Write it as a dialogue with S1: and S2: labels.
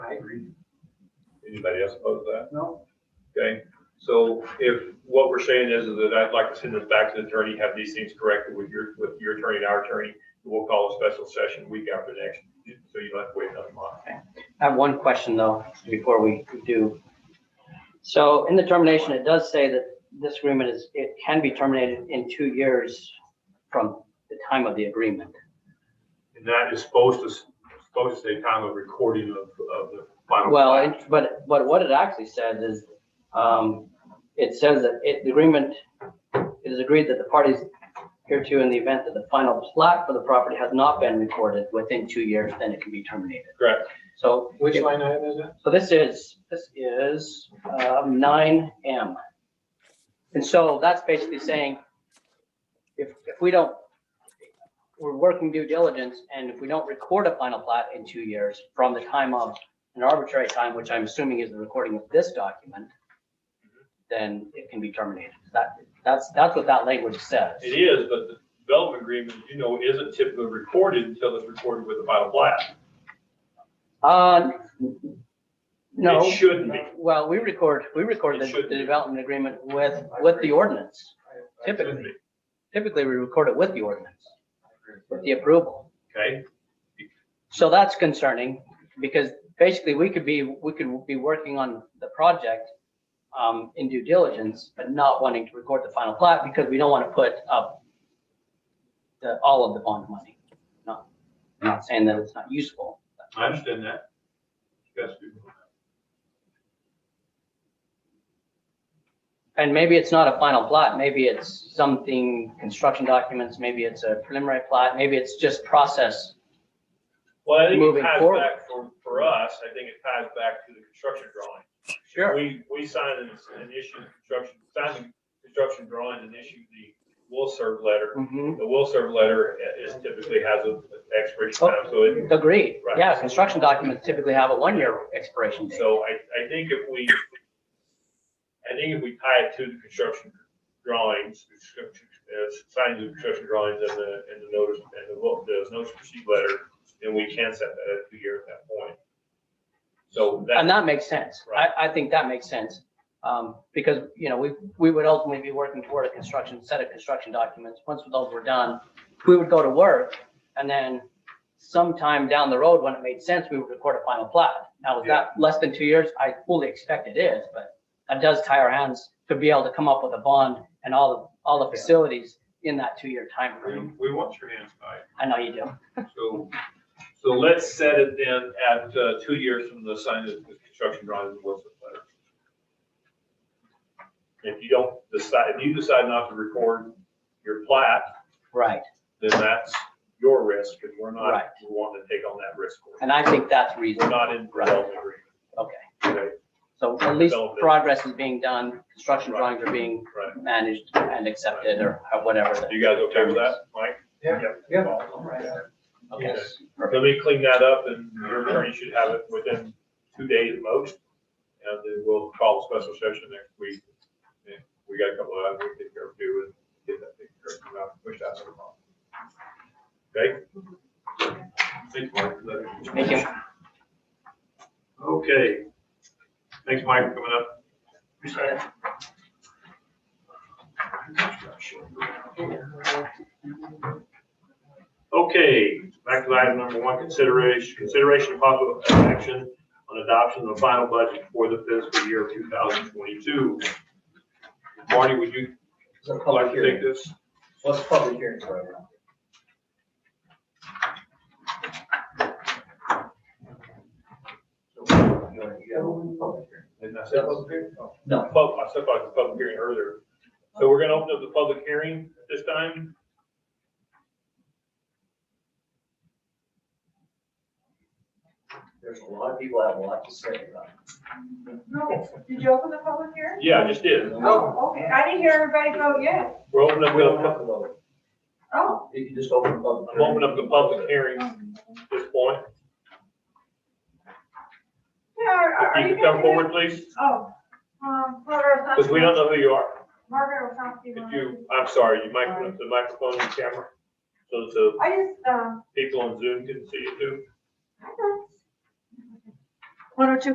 S1: I agree.
S2: Anybody else oppose that?
S1: No,
S2: Okay, so if, what we're saying is that I'd like to send this back to the attorney, have these things corrected with your, with your attorney and our attorney. We'll call a special session week after next, so you don't have to wait another month.
S3: I have one question though, before we do. So in the termination, it does say that this agreement is, it can be terminated in two years from the time of the agreement.
S2: And that is supposed to, supposed to say time of recording of, of the final.
S3: Well,
S2: plat.
S3: it- but, but what it actually says is, um, it says that it, the agreement, it is agreed that the parties hereto in the event that the final plat for the property has not been recorded within two years, then it can be terminated.
S2: Correct.
S3: So.
S4: Which line item is that?
S3: So this is, this is um, nine M. And so that's basically saying, if, if we don't, we're working due diligence, and if we don't record a final plat in two years from the time of, an arbitrary time, which I'm assuming is the recording of this document, then it can be terminated. That, that's, that's what that language says.
S2: It is, but the development agreement, you know, isn't typically recorded until it's recorded with the final plat.
S3: Uh, no.
S2: It shouldn't be.
S3: Well, we record, we record
S2: It
S3: the,
S2: should
S3: the
S2: be.
S3: development agreement with, with the ordinance.
S2: Shouldn't
S3: Typically,
S2: be,
S3: typically we record it with the ordinance, with the approval.
S2: Okay,
S3: So that's concerning because basically we could be, we could be working on the project um, in due diligence, but not wanting to record the final plat because we don't want to put up the, all of the bond money. Not, not saying that it's not useful.
S2: I understand that. You guys do.
S3: And maybe it's not a final plot, maybe it's something, construction documents, maybe it's a preliminary plot, maybe it's just process.
S2: Well, I think it
S3: moving
S2: ties
S3: forward.
S2: back for, for us, I think it ties back to the construction drawing. We, we signed an, an issue, construction, signed the construction drawing and issued the will serve letter.
S3: Mhm.
S2: The will serve letter is typically has a
S3: Oh.
S2: expiration time, so it,
S3: Agreed,
S2: Right.
S3: yeah, construction documents typically have a one-year expiration date.
S2: so I, I think if we, I think if we tie it to the construction drawings, construction, uh, signing the construction drawings and the, and the notice, and the, will- the notice to proceed letter, then we can set that at two years at that point. So that.
S3: And that makes sense,
S2: Right.
S3: I, I think that makes sense, um, because, you know, we, we would ultimately be working toward a construction, set of construction documents, once those were done, we would go to work, and then sometime down the road, when it made sense, we would record a final plat. Now, is that less than two years? I fully expect it is, but that does tie our hands to be able to come up with a bond and all, the all the facilities in that two-year time
S2: We,
S3: frame.
S2: we want your hands tied,
S3: I know you do.
S2: so, so let's set it then at, uh, two years from the signing of the construction drawings and Wilson letter. If you don't decide, if you decide not to record your plat,
S3: Right,
S2: then that's your risk, and we're not
S3: Right.
S2: wanting to take on that risk. for you.
S3: and I think that's
S2: We're
S3: reasonable.
S2: not in development agreement.
S3: Okay,
S2: Okay,
S3: so at least
S2: Development.
S3: progress is being done, construction
S2: Right.
S3: drawings are being
S2: right.
S3: managed and accepted or whatever. the-
S2: You guys okay with that, Mike?
S4: Yeah.
S2: Yeah.
S3: Okay.
S2: Let me clean that up, and your attorney should have it within two days at most. And then we'll call a special session next week. And We got a couple of items we can go do and get that thing correct, and not push that to the problem. Okay? Thanks, Mike. for that.
S3: Thank you.
S2: Okay. Thanks, Mike, for coming up. Okay, back to item number one, consideration, consideration of possible action on adoption of the final budget for the fiscal year two thousand twenty-two. Marty, would you
S4: It's a
S2: like
S4: public
S2: to take
S4: hearing.
S2: this?
S4: Well, it's a public hearing, so I don't- You wanna- you gotta open the public hearing.
S2: Didn't I
S4: Is
S2: say
S4: that
S2: public?
S4: public hearing? Oh,
S2: No, pub- I said about the public hearing earlier. So we're gonna open up the public hearing at this time.
S4: There's a lot of people that have a lot to say about it.
S5: No, did you open the public hearing?
S2: Yeah, I just did.
S5: Oh, okay, I didn't hear everybody vote yes.
S2: We're opening
S4: We don't
S2: up,
S4: have to vote.
S5: Oh.
S4: You can just open the public.
S2: the- I'm
S4: hearing.
S2: opening up the public hearing at this point.
S5: Yeah, are, are
S2: If
S5: you?
S2: you could come
S5: guys-
S2: forward, please,
S5: Oh, um, Florida or
S2: because we don't
S5: something.
S2: know who you are.
S5: Margaret or something.
S2: If you, I'm sorry, you might, the microphone and camera, so the
S5: I just, um,
S2: people on Zoom can see you too.
S5: I don't- 102